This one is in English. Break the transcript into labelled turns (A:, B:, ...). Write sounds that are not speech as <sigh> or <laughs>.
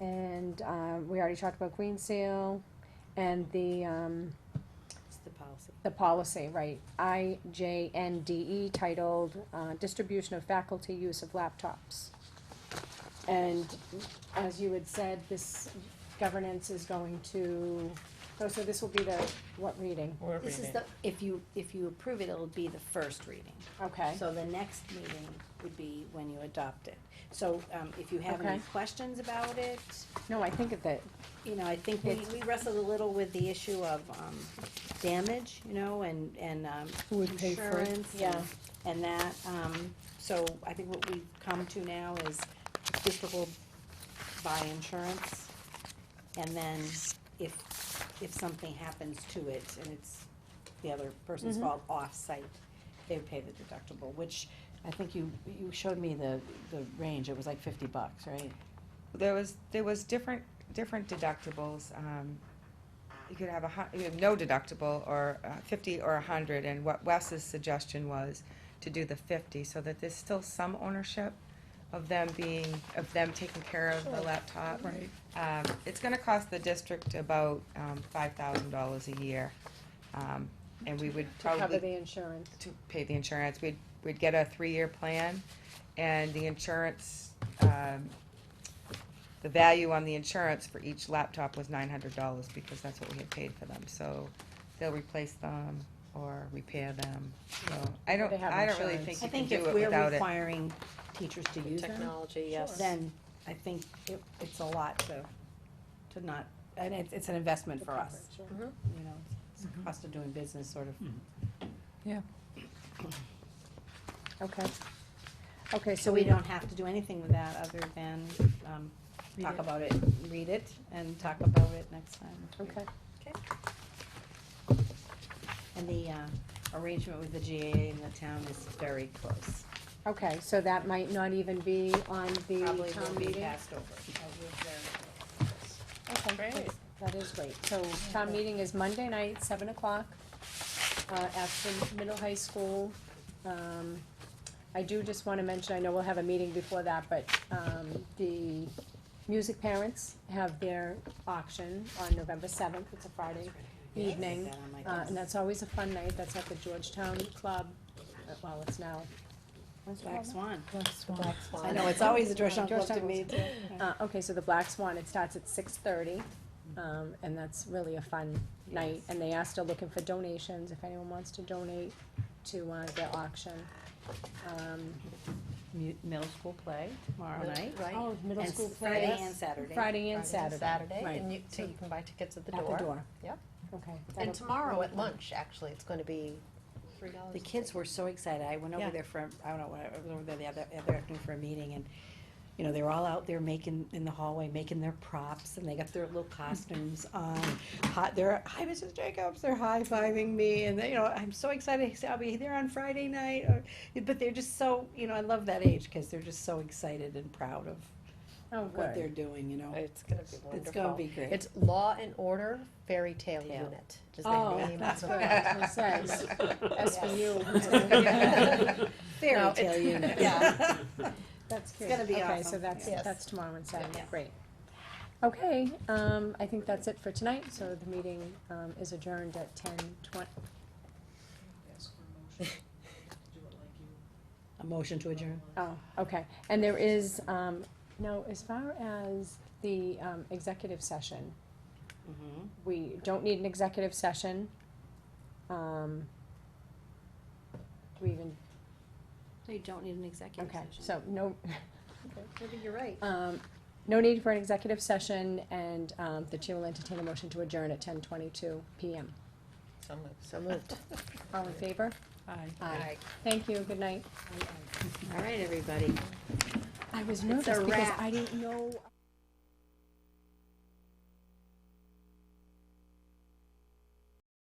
A: And, um, we already talked about Queen Seal and the, um,
B: It's the policy.
A: the policy, right, I J N D E titled, uh, Distribution of Faculty Use of Laptops. And as you had said, this governance is going to, oh, so this will be the, what reading?
C: We're
B: This is
C: reading.
B: the, if you, if you approve it, it'll be the first reading.
A: Okay,
B: So the next meeting would be when you adopt it. So, um, if you have
A: Okay.
B: any questions about it,
A: no, I think of that,
B: you know, I think we,
A: It's-
B: we wrestled a little with the issue of, um, damage, you know, and, and, um,
D: Who would pay for it?
B: insurance and-
A: Yeah.
B: And that, um, so I think what we've come to now is district will buy insurance. And then if, if something happens to it and it's the other person's
D: Mm-hmm.
B: fault off-site, they would pay the deductible, which I think you, you showed me the, the range, it was like fifty bucks, right?
C: There was, there was different, different deductibles, um, you could have a hu- you have no deductible or uh, fifty or a hundred, and what Wes's suggestion was to do the fifty, so that there's still some ownership of them being, of them taking care of the laptop.
D: Right.
C: Um, it's gonna cost the district about, um, five thousand dollars a year, um, and we would
A: to cover
C: probably
A: the insurance.
C: to pay the insurance. We'd, we'd get a three-year plan, and the insurance, um, the value on the insurance for each laptop was nine hundred dollars, because that's what we had paid for them, so they'll replace them or repair them, so, I don't,
A: They have
C: I don't really
A: insurance.
C: think
B: I
C: you
B: think
C: can do
B: if
C: it
B: we're
C: without it.
B: requiring teachers to use them.
E: Technology, yes.
B: then I think it, it's a lot to, to not, and it's, it's an investment for us, you know, it's
C: Mm-hmm.
B: a cost of doing business sort of.
A: Okay. Okay,
B: Mm-hmm. So we don't have to do anything with that other than, um,
A: Read
B: talk
A: it.
B: about it, read it, and talk about it next time.
A: Okay,
B: And the, uh, arrangement with the GAA and the town is very close,
A: okay, so that might not even be on the
B: probably
A: town
B: will be
A: meeting?
B: passed over.
A: Okay, that's- That is great. So town meeting is Monday night, seven o'clock, uh, at the middle high school. Um, I do just wanna mention, I know we'll have a meeting before that, but, um, the music parents have their auction on November seventh, it's a Friday evening.
B: That on my
A: Uh,
B: desk.
A: and that's always a fun night, that's at the Georgetown Club, Uh, well, it's now,
B: Black Swan,
E: Black Swan.
B: I know, it's always a Georgetown club to
A: Georgetown
B: me, too.
A: uh, okay, so the Black Swan, it starts at six thirty, um, and that's really a fun night, and they are still looking for donations, if anyone wants to donate to, uh, the auction. Um,
B: Mu- Middle school play tomorrow night.
E: Right.
A: oh, middle
B: And
A: school
B: s-
A: play,
B: Friday and Saturday.
A: Friday and Saturday,
E: Saturday,
A: right.
E: and you, so you can buy tickets at the
A: at the
E: door.
A: door.
E: Yep.
A: Okay. that'll-
E: And tomorrow at lunch, actually, it's gonna be three dollars.
B: The kids were so excited. I went over
E: Yeah.
B: there for, I don't know, what I was over there the other, other afternoon for a meeting and, you know, they were all out there making, in the hallway, making their props and they got their little costumes on. Hi, they're, hi, Mrs. Jacobs, they're high-fiving me and they, you know, I'm so excited. I'll be there on Friday night. or- But they're just so, you know, I love that age because they're just so excited and proud of
A: Oh, <laughs>
B: what they're
A: good.
B: doing, you know.
E: It's gonna be wonderful.
B: It's gonna be great.
E: It's Law and Order Fairy Tale
B: Yeah.
E: Unit. is the
A: Oh,
E: name of
A: that's
E: the-
A: good, it says, as for you.
C: <laughs>
B: <laughs> Fairy
E: No,
B: tale
E: it's-
B: unit.
E: <laughs> yeah.
A: That's good.
B: gonna be
A: Okay, so
B: awesome.
A: that's,
E: Yes.
A: that's tomorrow and Saturday,
B: Yeah.
A: great. Okay, um, I think that's it for tonight, so the meeting, um, is adjourned at ten twen-
F: ask for a motion, do it like you
B: A motion to adjourn.
A: oh, okay. And there is, um, no, as far as the, um, executive session,
B: Mhm.
A: we don't need an executive session. Um, do we even,
B: So you don't need an executive
A: okay,
B: session.
A: so no,
E: Maybe you're right.
A: um, no need for an executive session, and, um, the chair will entertain a motion to adjourn at ten twenty-two PM.
E: So moved. So moved.
A: All in favor?
B: Aye.
A: Aye. Thank you, good night.
B: All right, everybody.
A: I was
B: nervous because
A: I didn't know.